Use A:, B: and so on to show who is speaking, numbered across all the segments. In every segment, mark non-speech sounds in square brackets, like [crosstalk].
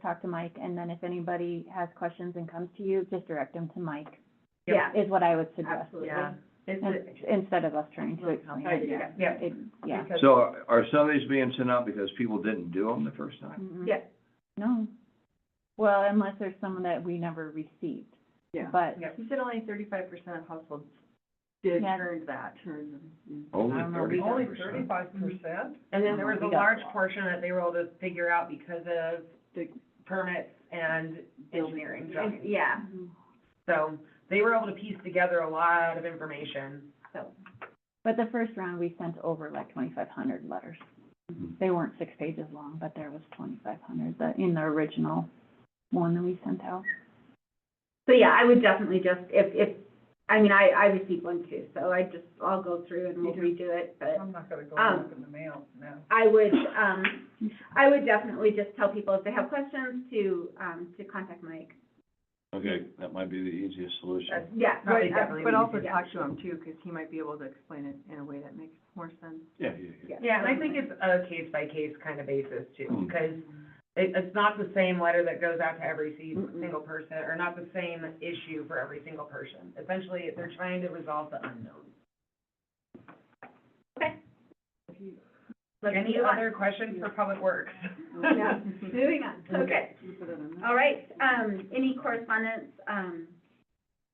A: talk to Mike, and then if anybody has questions and comes to you, just direct them to Mike.
B: Yeah.
A: Is what I would suggest,
B: Yeah. It's,
A: in- instead of us trying to explain
B: uh,
A: it.
B: yeah, yeah.
A: It, yeah.
B: Because-
C: So are- are some of these being sent out because people didn't do them the first time?
A: Mm-mm.
B: Yeah.
A: Mm-hmm. No. Well, unless there's some that we never received.
D: Yeah.
A: But
B: Yeah, he said only thirty-five percent of households did
A: Yeah.
B: turn that.
D: Turn them, mm.
C: Only
A: I don't know, we-
C: thirty-five
E: Only
C: percent?
E: thirty-five
F: Mm-hmm.
E: percent?
B: And
A: then there was a
B: large portion that they were able to figure out because of
D: The-
B: permits and
D: engineering
E: drawings.
B: Yeah,
A: mm-hmm.
B: so they were able to piece together a lot of information.
A: But the first round, we sent over like twenty-five hundred letters.
B: Mm-hmm.
C: Mhm.
A: They weren't six pages long, but there was twenty-five hundred, that, in the original one that we sent out.
F: So yeah, I would definitely just, if, if, I mean, I, I received one too, so I just, I'll go through and we'll
D: You
F: redo it, but
E: I'm not gonna go
F: Um,
E: look in the mail now.
F: I would, um, I would definitely just tell people if they have questions to, um, to contact Mike.
C: Okay, that might be the easiest solution.
F: Yeah.
B: Probably
F: right, uh,
B: definitely
D: But also
F: yeah.
D: talk to him too, because he might be able to explain it in a way that makes more sense.
C: Yeah, yeah,
F: uh,
C: yeah.
B: Yeah, and I think it's a case-by-case kind of basis too,
C: Mm.
B: because it, it's not the same letter that goes out to every se-
D: Mm-mm.
B: single person, or not the same issue for every single person. Essentially, they're trying to resolve the unknown.
F: Let's
B: Any
F: move on.
B: other questions for Public Works?
F: Yeah.
B: [laughs]
D: [laughs]
F: Moving
B: Mm-hmm.
F: on, okay,
D: You put it on there.
F: all right, um, any correspondence, um,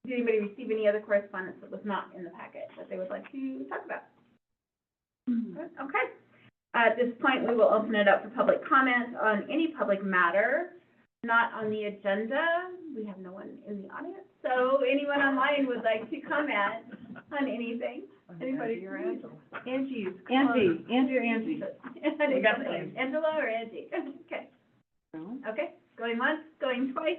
F: did anybody receive any other correspondence that was not in the packet that they would like to talk about? Okay. At this point, we will open it up for public comment on any public matter not on the agenda. We have no one in the audience, so anyone online would like to comment on anything? Anybody?
D: You're Angela. Angie's
A: Angie, Andrew,
F: [laughs]
A: Angie.
B: We got the-
F: Angela or Angie? [laughs] Okay,
D: closed.
F: okay, going once, going twice.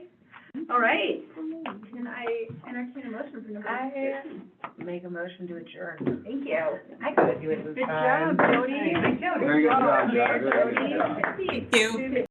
F: All right, and I entertain a motion from number
B: I-
F: two.
B: Make a motion to adjourn.
F: Thank you.
B: I gotta do it this
D: Good
B: time.
D: job, Jody.
B: Good job.
C: Very good job, Jody. Very good job.
F: Thank you.